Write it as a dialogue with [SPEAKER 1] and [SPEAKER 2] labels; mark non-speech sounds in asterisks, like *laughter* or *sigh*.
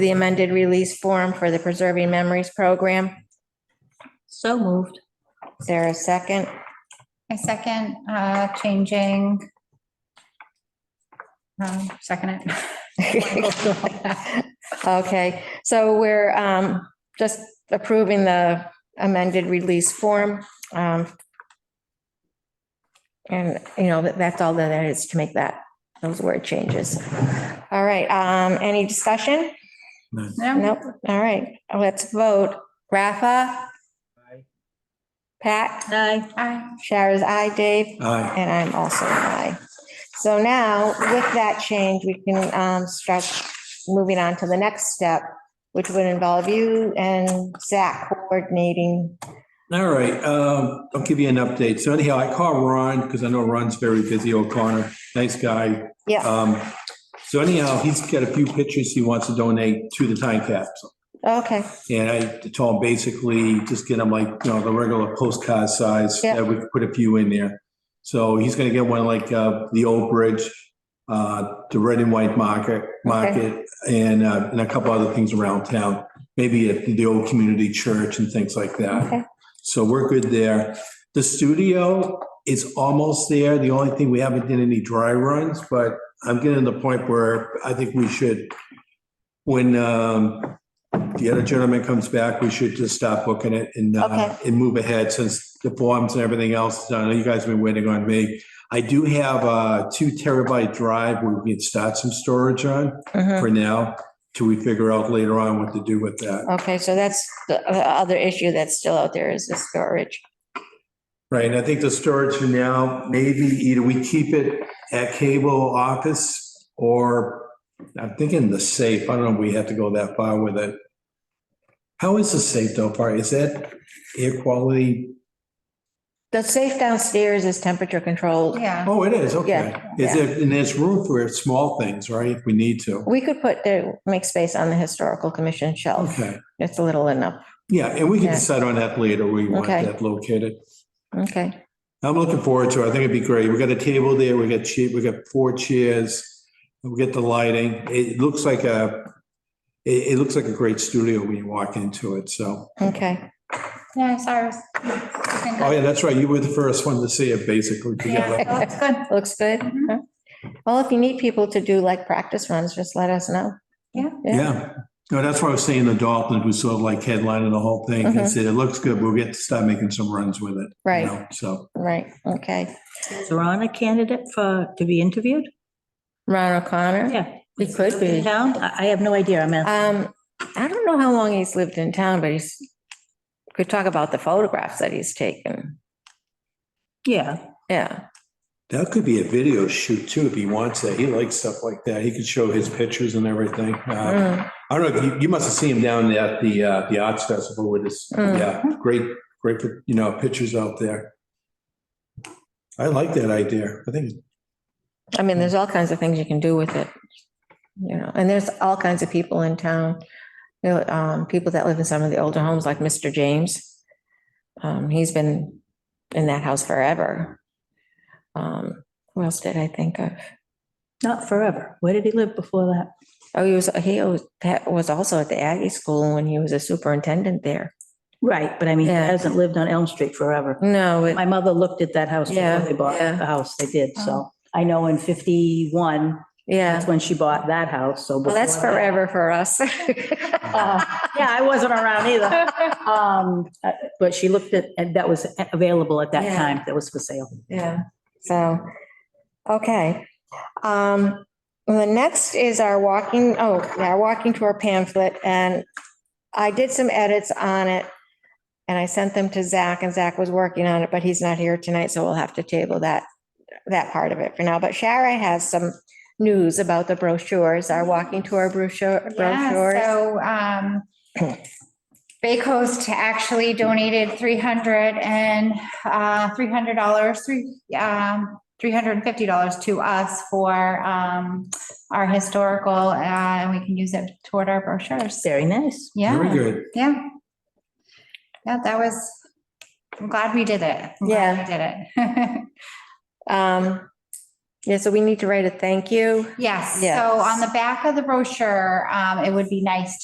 [SPEAKER 1] the amended release form for the Preserving Memories Program.
[SPEAKER 2] So moved.
[SPEAKER 1] Is there a second? *laughs*
[SPEAKER 3] I second, uh, changing. Um, second it. *laughs*
[SPEAKER 1] Okay, so we're um, just approving the amended release form. um, And, you know, that- that's all that is to make that, those word changes. All right, um, any discussion?
[SPEAKER 3] No?
[SPEAKER 1] Nope, all right, let's vote. Rafa? Pat?
[SPEAKER 2] Aye.
[SPEAKER 3] Aye.
[SPEAKER 1] Shara's aye, Dave?
[SPEAKER 4] Aye.
[SPEAKER 1] And I'm also an aye. So now, with that change, we can um, start moving on to the next step, which would involve you and Zach coordinating.
[SPEAKER 4] All right, um, I'll give you an update. So anyhow, I call Ron because I know Ron's very busy, O'Connor, nice guy.
[SPEAKER 1] Yeah,
[SPEAKER 4] Um, so anyhow, he's got a few pictures he wants to donate to the time capsule.
[SPEAKER 1] okay,
[SPEAKER 4] And I told him basically just get them like, you know, the regular postcard size,
[SPEAKER 1] Yeah.
[SPEAKER 4] that we could put a few in there. So he's gonna get one like, uh, the old bridge, uh, the red and white market, market, and, uh, and a couple other things around town. Maybe at the old community church and things like that.
[SPEAKER 1] okay,
[SPEAKER 4] So we're good there. The studio is almost there. The only thing, we haven't done any dry runs, but I'm getting to the point where I think we should, when um, the other gentleman comes back, we should just stop booking it and, uh,
[SPEAKER 1] Okay.
[SPEAKER 4] and move ahead since the forms and everything else is done. I know You guys have been waiting on me. I do have a two terabyte drive where we can start some storage on
[SPEAKER 1] mhm.
[SPEAKER 3] Mm-hmm.
[SPEAKER 4] for now till we figure out later on what to do with that.
[SPEAKER 1] okay, so that's the uh, other issue that's still out there is the storage.
[SPEAKER 4] Right, and I think the storage for now, maybe either we keep it at cable office or I'm thinking the safe. I don't know if we have to go that far with it. How is the safe though, part? Is that air quality?
[SPEAKER 1] The safe downstairs is temperature controlled.
[SPEAKER 3] Yeah.
[SPEAKER 4] Oh, it is, okay.
[SPEAKER 1] Yeah,
[SPEAKER 4] Is
[SPEAKER 1] yeah.
[SPEAKER 4] it, and there's room for small things, right, if we need to?
[SPEAKER 1] We could put the, make space on the historical commission shelf.
[SPEAKER 4] Okay,
[SPEAKER 3] Mm-hmm.
[SPEAKER 1] It's a little enough,
[SPEAKER 4] yeah, and we can
[SPEAKER 1] Yeah.
[SPEAKER 4] decide on that later, where you want
[SPEAKER 1] Okay.
[SPEAKER 4] that located.
[SPEAKER 1] okay.
[SPEAKER 4] I'm looking forward to it. I think it'd be great. We got a table there, we got che we got four chairs, we get the lighting. It looks like a, it, it looks like a great studio when you walk into it, so.
[SPEAKER 1] Okay,
[SPEAKER 3] Yeah, sorry.
[SPEAKER 4] Oh, yeah, that's right. You were the first one to see it basically
[SPEAKER 1] *laughs*
[SPEAKER 4] together.
[SPEAKER 3] Yeah, that's good.
[SPEAKER 1] looks good.
[SPEAKER 3] Mhm.
[SPEAKER 1] Well, if you need people to do like practice runs, just let us know.
[SPEAKER 3] Yeah.
[SPEAKER 4] Yeah. No, that's why I was saying the Dalton, who sort of like headlining the whole thing, and
[SPEAKER 1] Mhm.
[SPEAKER 4] said, it looks good. We'll get to start making some runs with it. you
[SPEAKER 1] Right.
[SPEAKER 4] know, So,
[SPEAKER 1] Right, okay.
[SPEAKER 2] Is Ron a candidate for, to be interviewed?
[SPEAKER 1] Ron O'Connor?
[SPEAKER 2] Yeah.
[SPEAKER 1] He could be.
[SPEAKER 2] Town? I, I have no idea. I'm asking.
[SPEAKER 1] Um, I don't know how long he's lived in town, but he's, could talk about the photographs that he's taken.
[SPEAKER 2] Yeah.
[SPEAKER 1] Yeah,
[SPEAKER 4] that could be a video shoot too, if he wants that. He likes stuff like that. He could show his pictures and everything. Uh,
[SPEAKER 1] Mm,
[SPEAKER 4] I don't know, if you, you must have seen him down at the, uh, the Arts Festival with this,
[SPEAKER 1] Mm.
[SPEAKER 4] yeah, great, great, you know, pictures out there. I like that idea. I think,
[SPEAKER 1] I mean, there's all kinds of things you can do with it. You know, and there's all kinds of people in town, you know, um, people that live in some of the older homes, like Mr. James. Um, he's been in that house forever. Um, who else did I think of?
[SPEAKER 2] Not forever. Where did he live before that?
[SPEAKER 1] Oh, he was, he was, that was also at the Aggie School when he was a superintendent there.
[SPEAKER 2] Right, but I mean, he
[SPEAKER 1] Yeah.
[SPEAKER 2] hasn't lived on Elm Street forever.
[SPEAKER 1] No, it-
[SPEAKER 2] My mother looked at that house
[SPEAKER 1] Yeah,
[SPEAKER 2] before they bought
[SPEAKER 1] yeah.
[SPEAKER 2] the house. They did, so. I know in 51,
[SPEAKER 1] yeah.
[SPEAKER 2] that's when she bought that house, so.
[SPEAKER 1] Well, that's
[SPEAKER 2] before that-
[SPEAKER 1] forever for us. *laughs*
[SPEAKER 2] Uh, Yeah, I wasn't around either. *laughs* Um, uh, But she looked at, and that was available at that
[SPEAKER 1] Yeah.
[SPEAKER 2] time, that was for sale.
[SPEAKER 1] Yeah, so, okay. Um, the next is our walking, oh, yeah, our walking tour pamphlet, and I did some edits on it. And I sent them to Zach, and Zach was working on it, but he's not here tonight, so we'll have to table that, that part of it for now. But Shara has some news about the brochures, our walking tour brochure,
[SPEAKER 3] Yeah,
[SPEAKER 1] brochures.
[SPEAKER 3] so, um, Bay Coast actually donated three hundred and, uh, three hundred dollars, three, um, three hundred and fifty dollars to us for, um, our historical, uh, and we can use it toward our brochures.
[SPEAKER 2] Very nice.
[SPEAKER 4] very
[SPEAKER 3] Yeah,
[SPEAKER 4] good.
[SPEAKER 3] yeah. Yeah, that was, I'm glad we did it. *laughs* I'm glad
[SPEAKER 1] Yeah.
[SPEAKER 3] we Did it.
[SPEAKER 1] Um, Yeah, so we need to write a thank you.
[SPEAKER 3] Yes,
[SPEAKER 1] Yes.
[SPEAKER 3] so on the back of the brochure, um, it would be nice